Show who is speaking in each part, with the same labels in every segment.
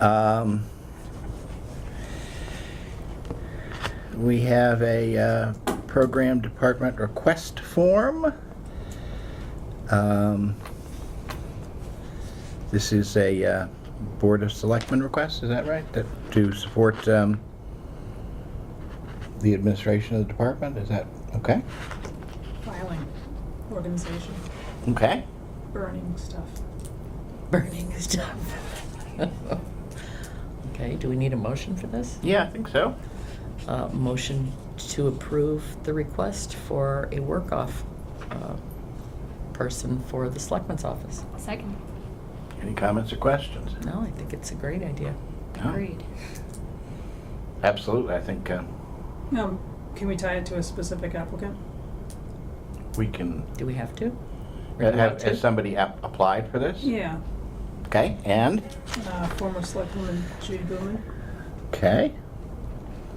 Speaker 1: Um, We have a uh, program department request form. Um, This is a uh, Board of Selectmen request, is that right? That- To support um, the administration of the department, is that, okay?
Speaker 2: filing organization,
Speaker 1: Okay.
Speaker 2: burning stuff.
Speaker 3: burning stuff. Okay, do we need a motion for this?
Speaker 1: Yeah, I think so.
Speaker 3: Uh, Motion to approve the request for a work-off uh, person for the selectman's office.
Speaker 4: Second.
Speaker 1: Any comments or questions?
Speaker 3: No, I think it's a great idea.
Speaker 1: No?
Speaker 4: Agreed.
Speaker 1: Absolutely, I think um,
Speaker 2: Um, can we tie it to a specific applicant?
Speaker 1: we can,
Speaker 3: Do we have to? Or do we
Speaker 1: have-
Speaker 3: want to?
Speaker 1: has somebody ap- applied for this?
Speaker 2: Yeah,
Speaker 1: Okay, and?
Speaker 2: uh, former selectwoman Judy Boomen,
Speaker 1: Okay,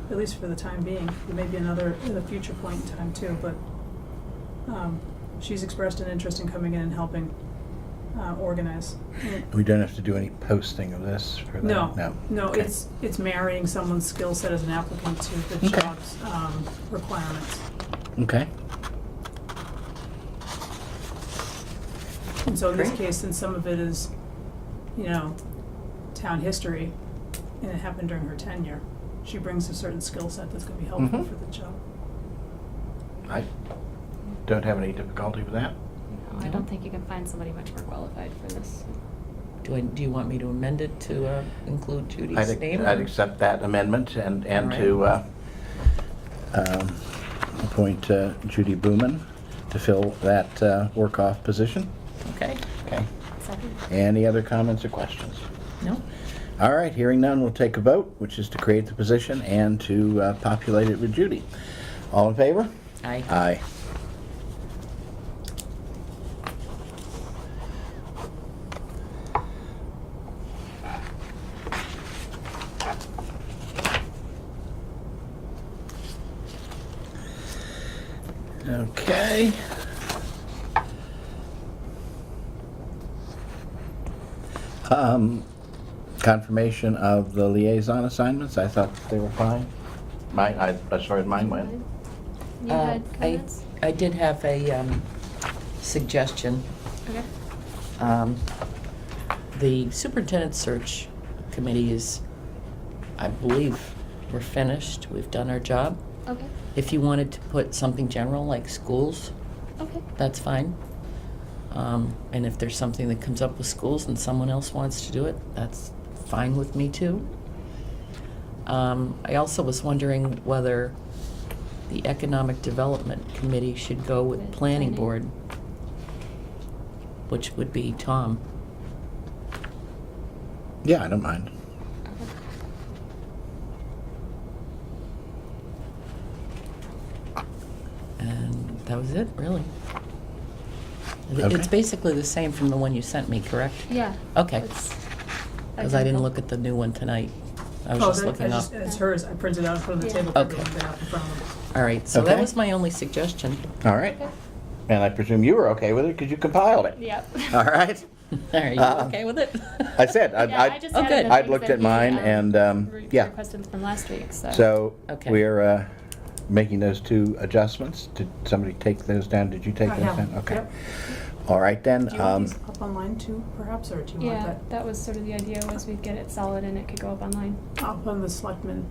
Speaker 2: at least for the time being. There may be another at a future point in time too, but, um, she's expressed an interest in coming in and helping, uh, organize.
Speaker 1: we don't have to do any posting of this for the?
Speaker 2: No, no,
Speaker 1: Okay.
Speaker 2: it's, it's marrying someone's skill set as an applicant to the
Speaker 1: Okay.
Speaker 2: job's, um, requirements.
Speaker 1: Okay,
Speaker 2: And so in this
Speaker 3: Great.
Speaker 2: case, since some of it is, you know, town history, and it happened during her tenure, she brings a certain skill set that's gonna be helpful
Speaker 3: Mm-hmm.
Speaker 1: Mhm.
Speaker 2: for the job.
Speaker 1: I don't have any difficulty with that.
Speaker 4: No, I don't think you can find somebody much more qualified for this.
Speaker 3: Do I, do you want me to amend it to uh, include
Speaker 1: I'd
Speaker 3: Judy's
Speaker 1: ac-
Speaker 3: name?
Speaker 1: I'd accept that amendment and, and
Speaker 3: All
Speaker 1: to uh, um, appoint uh, Judy Boomen to fill that uh, work-off position.
Speaker 3: Okay,
Speaker 1: Okay,
Speaker 4: Second.
Speaker 1: any other comments or questions?
Speaker 3: no?
Speaker 1: All right, hearing none, we'll take a vote, which is to create the position and to uh, populate it with Judy. All in favor?
Speaker 3: Aye.
Speaker 1: Aye. Okay. Um, confirmation of the liaison assignments, I thought they were fine. Mine, I, as far as mine went.
Speaker 4: You
Speaker 3: Uh,
Speaker 4: had
Speaker 3: I-
Speaker 4: comments?
Speaker 3: I did have a um, suggestion.
Speaker 4: Okay.
Speaker 3: Um, The superintendent search committee is, I believe, we're finished, we've done our job.
Speaker 4: Okay.
Speaker 3: If you wanted to put something general like schools,
Speaker 4: Okay.
Speaker 3: that's fine. Um, And if there's something that comes up with schools and someone else wants to do it, that's fine with me too. Um, I also was wondering whether the Economic Development Committee should go with
Speaker 4: With
Speaker 3: Planning
Speaker 4: planning.
Speaker 3: Board, which would be Tom.
Speaker 1: Yeah, I don't mind.
Speaker 4: Okay.
Speaker 3: And that was it, really. It-
Speaker 1: Okay.
Speaker 3: It's basically the same from the one you sent me, correct?
Speaker 4: Yeah.
Speaker 3: Okay.
Speaker 4: it's
Speaker 3: Because I didn't
Speaker 4: identical.
Speaker 3: look at the new one tonight. I was
Speaker 2: Oh,
Speaker 3: just
Speaker 2: that- I
Speaker 3: looking up.
Speaker 2: just- It's hers, I printed out from the
Speaker 4: Yeah.
Speaker 2: table, for
Speaker 3: Okay.
Speaker 2: everyone to have in front of them.
Speaker 3: All right, so that
Speaker 1: Okay.
Speaker 3: was my only suggestion.
Speaker 1: All right.
Speaker 4: Okay.
Speaker 1: And I presume you were okay with it because you compiled it.
Speaker 4: Yep.
Speaker 1: All right.
Speaker 3: Are you
Speaker 1: Uh,
Speaker 3: okay with it?
Speaker 1: I said, I,
Speaker 4: Yeah, I just
Speaker 1: I,
Speaker 3: Oh,
Speaker 4: added
Speaker 3: good.
Speaker 4: the
Speaker 1: I'd
Speaker 4: things
Speaker 1: looked
Speaker 4: that
Speaker 1: at
Speaker 4: he,
Speaker 1: mine
Speaker 4: um,
Speaker 1: and, um,
Speaker 4: re-
Speaker 1: yeah.
Speaker 4: Requested from last week, so.
Speaker 1: so
Speaker 3: Okay.
Speaker 1: we're uh, making those two adjustments. Did somebody take those down? Did you take
Speaker 2: I
Speaker 1: those
Speaker 2: have,
Speaker 1: down? Okay.
Speaker 2: yep.
Speaker 1: All right then.
Speaker 2: Do you
Speaker 1: um,
Speaker 2: want these up online too, perhaps, or do you want
Speaker 4: Yeah,
Speaker 2: that
Speaker 4: that was sort of the idea was we'd get it solid and it could go up online.
Speaker 2: up on the selectmen,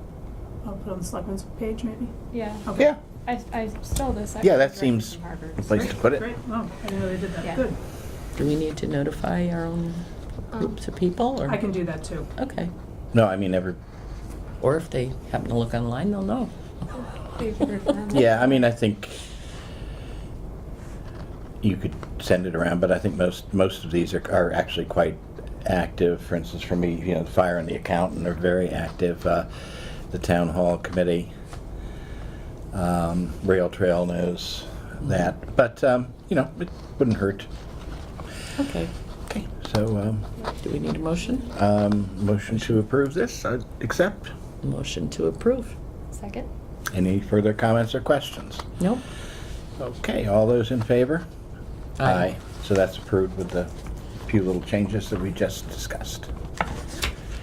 Speaker 2: I'll put on the selectmen's page maybe?
Speaker 4: Yeah.
Speaker 2: Okay.
Speaker 1: yeah,
Speaker 4: I, I stole this.
Speaker 1: Yeah, that
Speaker 4: directly
Speaker 1: seems
Speaker 4: from Harvard,
Speaker 1: the place
Speaker 4: so-
Speaker 1: to put it.
Speaker 2: Great, oh, I didn't know they did that,
Speaker 4: Yeah.
Speaker 2: good.
Speaker 3: Do we need to notify our own
Speaker 4: Um,
Speaker 3: groups of people, or?
Speaker 2: I can do that too.
Speaker 3: Okay.
Speaker 1: No, I mean every.
Speaker 3: Or if they happen to look online, they'll know.
Speaker 4: We've heard from them.
Speaker 1: Yeah, I mean I think you could send it around, but I think most most of these are, are actually quite active. For instance, for me, you know, the fire and the accountant are very active. Uh, the town hall committee. um, rail trail knows that. But, um, you know, it wouldn't hurt.
Speaker 3: Okay.
Speaker 1: Okay. So, um,
Speaker 3: Do we need a motion?
Speaker 1: um, motion to approve this, I accept.
Speaker 3: Motion to approve.
Speaker 4: Second.
Speaker 1: Any further comments or questions?
Speaker 3: Nope.
Speaker 1: Okay, all those in favor? So that's approved with the few little changes that we just discussed.